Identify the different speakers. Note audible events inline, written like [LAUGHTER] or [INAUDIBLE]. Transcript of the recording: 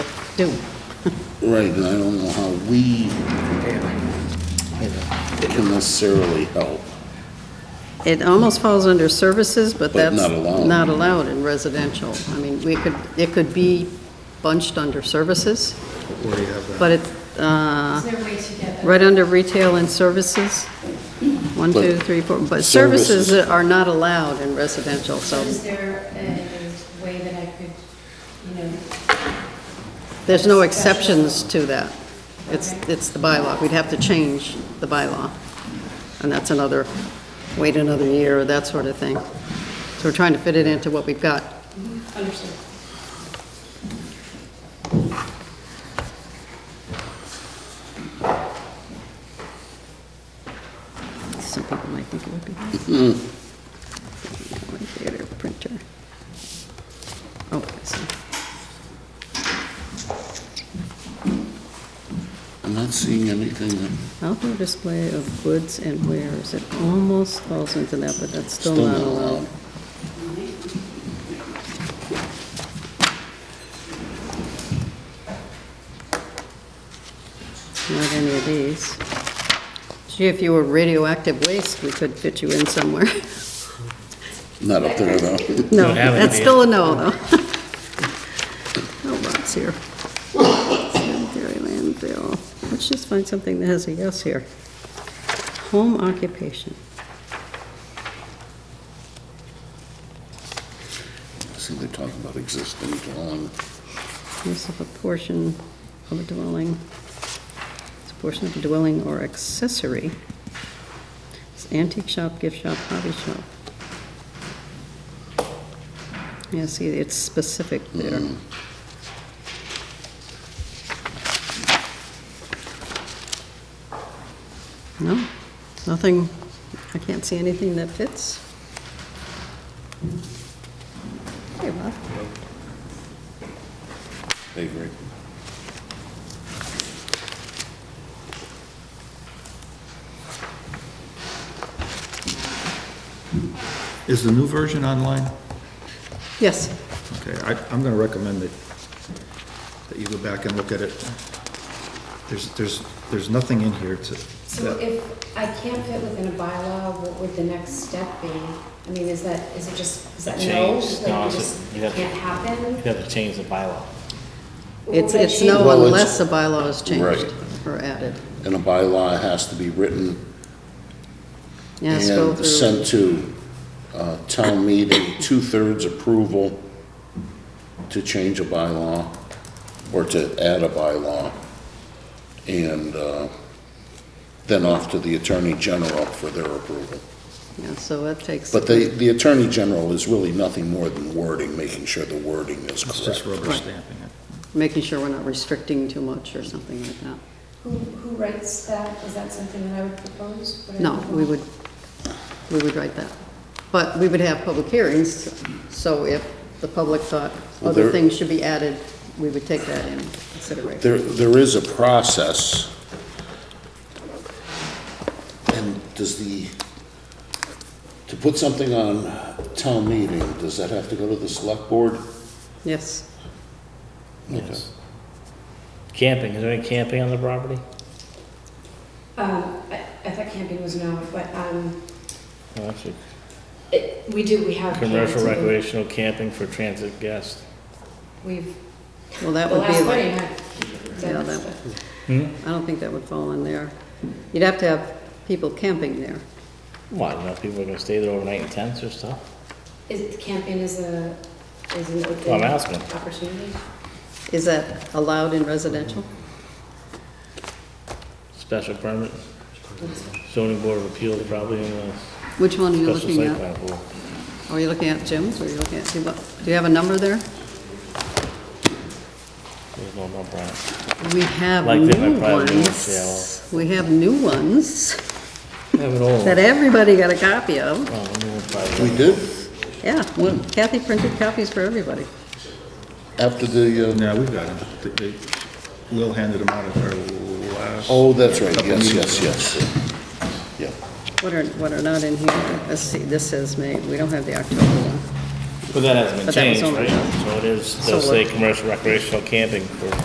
Speaker 1: do.
Speaker 2: Right, and I don't know how we can necessarily help.
Speaker 1: It almost falls under services, but
Speaker 2: But
Speaker 1: that's
Speaker 2: not allowed.
Speaker 1: not allowed in residential. I mean, we could, it could be bunched under services,
Speaker 3: Where do you have that?
Speaker 1: but it's, uh,
Speaker 4: Is there a way to get
Speaker 1: right under retail and services, one,
Speaker 2: But-
Speaker 1: two, three, four, but
Speaker 2: Services.
Speaker 1: services are not allowed in residential,
Speaker 4: So
Speaker 1: so
Speaker 4: is there a way that I could, you know,
Speaker 1: there's no exceptions to that. It's, it's the bylaw, we'd have to change the bylaw, and that's another, wait another year, or that sort of thing. So we're trying to fit it into what we've got.
Speaker 4: understand?
Speaker 1: Some people might think it would be. Mm-hmm. Right Theater printer. Oh, I see.
Speaker 2: I'm not seeing anything that,
Speaker 1: Outdoor display of goods and wares, it almost falls into that, but that's still
Speaker 2: Still
Speaker 1: not
Speaker 2: not
Speaker 1: allowed.
Speaker 2: allowed.
Speaker 1: Not any of these. Gee, if you were radioactive waste, we could fit you in somewhere. [LAUGHS]
Speaker 2: not up there though. [LAUGHS]
Speaker 1: No,
Speaker 5: Don't have
Speaker 1: that's
Speaker 5: any.
Speaker 1: still a no, though. [LAUGHS] Oh, Rob's here. Cemetery landfill. Let's just find something that has a yes here. Home occupation.
Speaker 2: See, they're talking about existing dwelling.
Speaker 1: Use of a portion of a dwelling, it's a portion of a dwelling or accessory. It's antique shop, gift shop, hobby shop. Yeah, see, it's specific there. No, nothing, I can't see anything that fits. Hey, Rob.
Speaker 2: I agree.
Speaker 3: Is the new version online?
Speaker 1: Yes.
Speaker 3: Okay, I, I'm gonna recommend that, that you go back and look at it. There's, there's, there's nothing in here to,
Speaker 4: So
Speaker 3: that-
Speaker 4: if I can't fit within a bylaw, what would the next step be? I mean, is that, is it just, is that
Speaker 5: A
Speaker 4: no?
Speaker 5: change?
Speaker 4: Like,
Speaker 5: No,
Speaker 4: it
Speaker 5: it's
Speaker 4: just
Speaker 5: a- you'd have
Speaker 4: can't
Speaker 5: to-
Speaker 4: happen?
Speaker 5: You'd have to change the bylaw.
Speaker 1: It's,
Speaker 4: Would I
Speaker 1: it's
Speaker 4: change-
Speaker 1: no
Speaker 2: Well, it's-
Speaker 1: unless a bylaw is changed
Speaker 2: Right.
Speaker 1: or added.
Speaker 2: And a bylaw has to be written
Speaker 1: Yeah, it's go
Speaker 2: and
Speaker 1: through.
Speaker 2: sent to uh, town meeting, two-thirds approval to change a bylaw or to add a bylaw. And uh, then off to the Attorney General for their approval.
Speaker 1: Yeah, so that takes,
Speaker 2: But the, the Attorney General is really nothing more than wording, making sure the wording is
Speaker 3: it's just
Speaker 2: correct.
Speaker 3: rubber
Speaker 1: Right.
Speaker 3: stamping it.
Speaker 1: making sure we're not restricting too much or something like that.
Speaker 4: Who, who writes that? Is that something that I would propose? Would I
Speaker 1: No, we
Speaker 4: propose?
Speaker 1: would, we would write that. But we would have public hearings, so if the public thought
Speaker 2: Well,
Speaker 1: other
Speaker 2: there-
Speaker 1: things should be added, we would take that in consideration.
Speaker 2: There, there is a process. And does the, to put something on town meeting, does that have to go to the select board?
Speaker 1: Yes,
Speaker 5: Yes. Camping, is there any camping on the property?
Speaker 4: Um, I, I thought camping was no, but, um,
Speaker 5: No, that's a
Speaker 4: it, we do, we have.
Speaker 5: Commercial
Speaker 4: camping.
Speaker 5: recreational camping for transit guests.
Speaker 4: We've,
Speaker 1: well, that
Speaker 4: the
Speaker 1: would be.
Speaker 4: last
Speaker 1: like-
Speaker 4: wedding, I.
Speaker 1: Yeah, that would- I don't think that would fall in there. You'd have to have people camping there.
Speaker 5: Well, you know, people are gonna stay there overnight in tents or stuff.
Speaker 4: Is it, camping is a, is an
Speaker 5: Well,
Speaker 4: open
Speaker 5: I'm asking.
Speaker 4: opportunity?
Speaker 1: Is that allowed in residential?
Speaker 5: Special permit, zoning board of appeals probably in the
Speaker 1: Which one are you
Speaker 5: special
Speaker 1: looking
Speaker 5: site
Speaker 1: at?
Speaker 5: plan approval.
Speaker 1: Are you looking at gyms, or are you looking at, do you- do you have a number there?
Speaker 5: There's no number on it.
Speaker 1: We have
Speaker 5: Like they
Speaker 1: new
Speaker 5: might probably do it,
Speaker 1: ones. We have new ones
Speaker 5: I have an old
Speaker 1: that
Speaker 5: one.
Speaker 1: everybody got a copy of.
Speaker 5: Oh, a new one probably.
Speaker 2: We did,
Speaker 1: Yeah, Kathy printed copies for everybody.
Speaker 2: after the, uh,
Speaker 3: No, we've got them. They- they- Lil handed them out at our last.
Speaker 2: oh, that's right, yes, yes, yes. Yeah,
Speaker 1: What are, what are not in here? Let's see, this says May, we don't have the October one.
Speaker 5: But that hasn't been
Speaker 1: But that was
Speaker 5: changed,
Speaker 1: only-
Speaker 5: right? So it is,
Speaker 1: So
Speaker 5: they'll say
Speaker 1: what-
Speaker 5: commercial recreational camping for